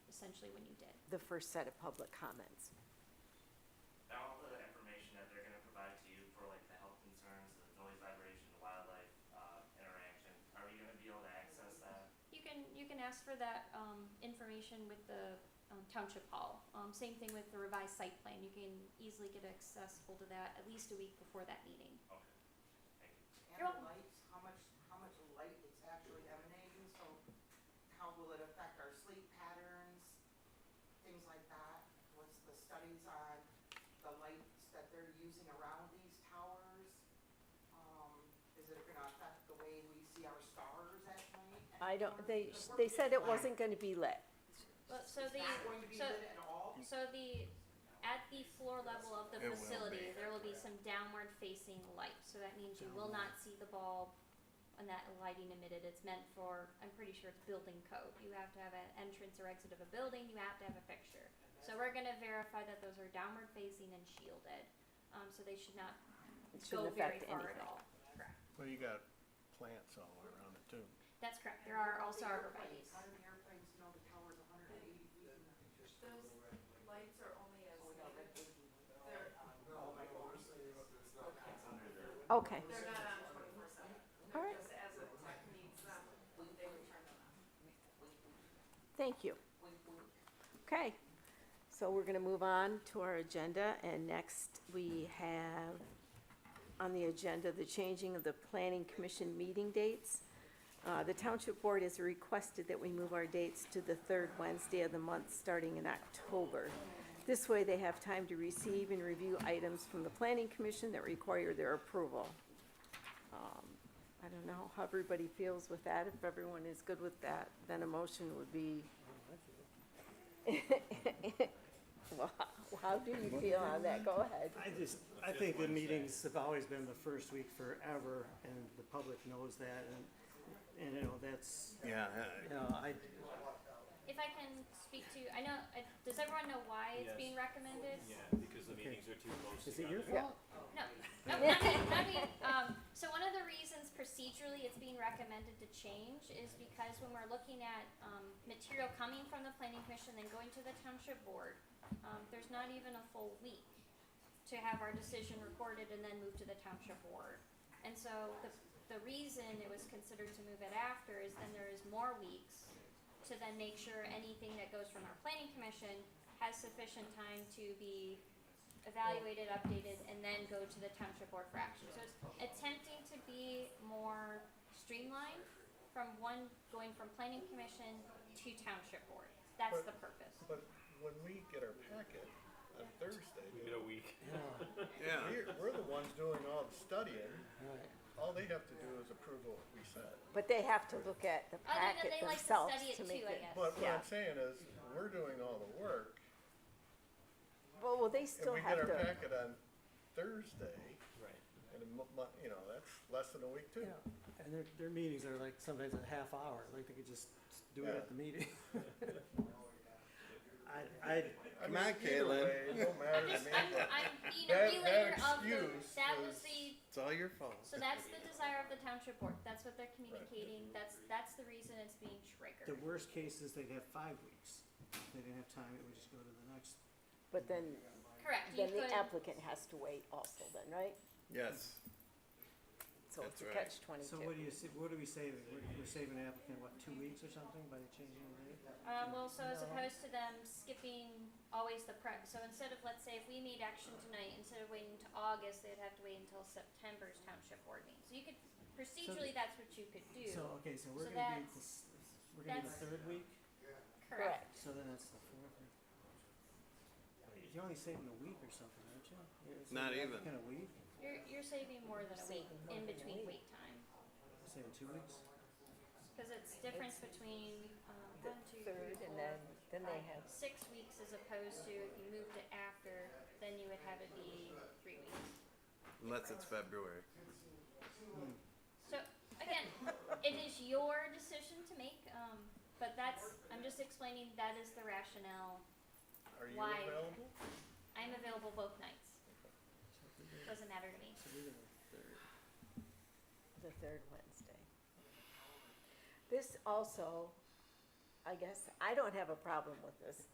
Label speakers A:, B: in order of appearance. A: initially when you did?
B: the first set of public comments.
C: all the information that they're gonna provide to you for like the health concerns, the noise vibration, the wildlife, uh, interaction, are we gonna be able to access that?
A: You can, you can ask for that, um, information with the um, township hall. Um, same thing with the revised site plan, you can easily get accessible to that at least a week before that meeting.
C: Okay, thank you.
D: And
A: You're
D: the
A: welcome.
D: lights, how much, how much light is actually emanating, so how will it affect our sleep patterns? Things like that, what's the studies on the lights that they're using around these towers? Um, is it gonna affect the way we see our stars at night? at
B: I don't,
D: towers?
B: they,
D: Because we're
B: they said it
D: pitch black.
B: wasn't gonna be lit.
A: But, so
D: It's
A: the,
D: not going to be
A: so-
D: lit at all?
A: so the, at the floor level of the
E: It will be.
A: facility, there will be some downward facing light, so that means you will not see the bulb and that lighting emitted, it's meant for, I'm pretty sure it's building code, you have to have an entrance or exit of a building, you have to have a fixture. So we're gonna verify that those are downward facing and shielded, um, so they should not
B: It
A: go
B: shouldn't
A: very
B: affect
A: far
B: anything.
A: at all.
E: Well, you got plants all around it too.
A: That's correct, there are also arborvitae's.
D: How do the airplanes know the tower's a hundred and eighty feet? in the-
F: Lights are only as,
D: Oh, we got red blinking.
F: They're-
D: Oh, my God.
C: It's under the,
B: Okay,
F: they're not on twenty-four seven.
B: All right.
F: Just as a tech needs them, they would turn them on.
B: thank you. Okay, so we're gonna move on to our agenda, and next we have on the agenda the changing of the planning commission meeting dates. Uh, the township board has requested that we move our dates to the third Wednesday of the month, starting in October. This way, they have time to receive and review items from the planning commission that require their approval. Um, I don't know how everybody feels with that, if everyone is good with that, then a motion would be well, how- how do you feel on that? Go ahead.
G: I just, I think the meetings have always been the first week forever, and the public knows that, and, and, you know, that's,
E: Yeah,
G: you know, I,
A: If I can speak to, I know, I- does everyone know why it's
H: Yes.
A: being recommended?
H: Yeah, because the
G: Okay.
H: meetings are too close
G: is it
H: together.
G: your
B: Yeah.
G: fault?
A: No, no, not me, not me. Um, so one of the reasons procedurally it's being recommended to change is because when we're looking at, um, material coming from the planning commission and going to the township board, um, there's not even a full week to have our decision recorded and then move to the township board. And so the, the reason it was considered to move it after is then there is more weeks to then make sure anything that goes from our planning commission has sufficient time to be evaluated, updated, and then go to the township board for action. So it's attempting to be more streamlined from one, going from planning commission to township board. That's the purpose.
I: But when we get our packet on Thursday,
H: We get a week.
E: yeah.
I: we're, we're the ones doing all the studying.
G: Right.
I: All they have to do is approve what we said.
B: But they have to look at the
A: Other than
B: packet
A: they like to
B: themselves
A: study it
B: to make
A: too, I
B: it.
A: guess.
I: But what
B: Yeah.
I: I'm saying is, we're doing all the work.
B: Well, well, they
I: If
B: still
I: we
B: have
I: get our
B: to,
I: packet on Thursday,
H: Right.
I: and, a mo- mo- you know, that's less than a week too.
G: Yeah, and their, their meetings are like sometimes a half hour, like they could just do it at the meeting. I, I,
I: I
E: Come on,
I: mean, either
E: Caitlin.
I: way, it don't matter
A: I'm
I: to
A: just,
I: me,
A: I'm,
I: but
A: I'm being a
I: That-
A: relayer
I: that
A: of the,
I: excuse
A: that was
I: was-
A: the,
E: It's all your fault.
A: so that's the desire of the township board. That's what they're communicating. That's, that's the reason it's being triggered.
G: the worst case is they'd have five weeks. If they didn't have time, it would just go to the next.
B: but then,
A: Correct, you
B: then the
A: could,
B: applicant has to wait also then, right?
E: Yes.
B: So
E: That's
B: it's a
E: right.
B: catch
G: So
B: twenty-two.
G: what do you, sa- what are we saving? We're, we're saving an applicant, what, two weeks or something by changing the date?
A: um, well, so as
G: No.
A: opposed to them skipping always the prep, so instead of, let's say, if we made action tonight, instead of waiting to August, they'd have to wait until September's township board meeting. So you could, procedurally, that's what you could do,
G: So, okay, so
A: So
G: we're gonna do
A: that's-
G: this, we're gonna do the
A: that's-
G: third week,
A: correct?
G: so then that's the fourth week. You're only saving a week or something, aren't you? You're saving
E: Not
G: an
E: even.
G: applicant a week,
A: You're, you're saving more than a week
B: Saving more
A: in
B: than a
A: between
B: week.
A: wait time,
G: You're saving two weeks?
A: cause it's difference between, um,
B: The
A: one, two, three,
B: third and
A: four,
B: then, then they
A: five,
B: have,
A: six weeks as opposed to if you moved it after, then you would have it be three weeks.
E: Unless it's February.
A: So again, it is your decision to make, um, but that's, I'm just explaining that is the rationale.
I: are you
A: why-
I: available?
A: I'm available both nights. Doesn't matter to me.
G: So we're gonna third.
B: the third Wednesday. This also, I guess, I don't have a problem with this.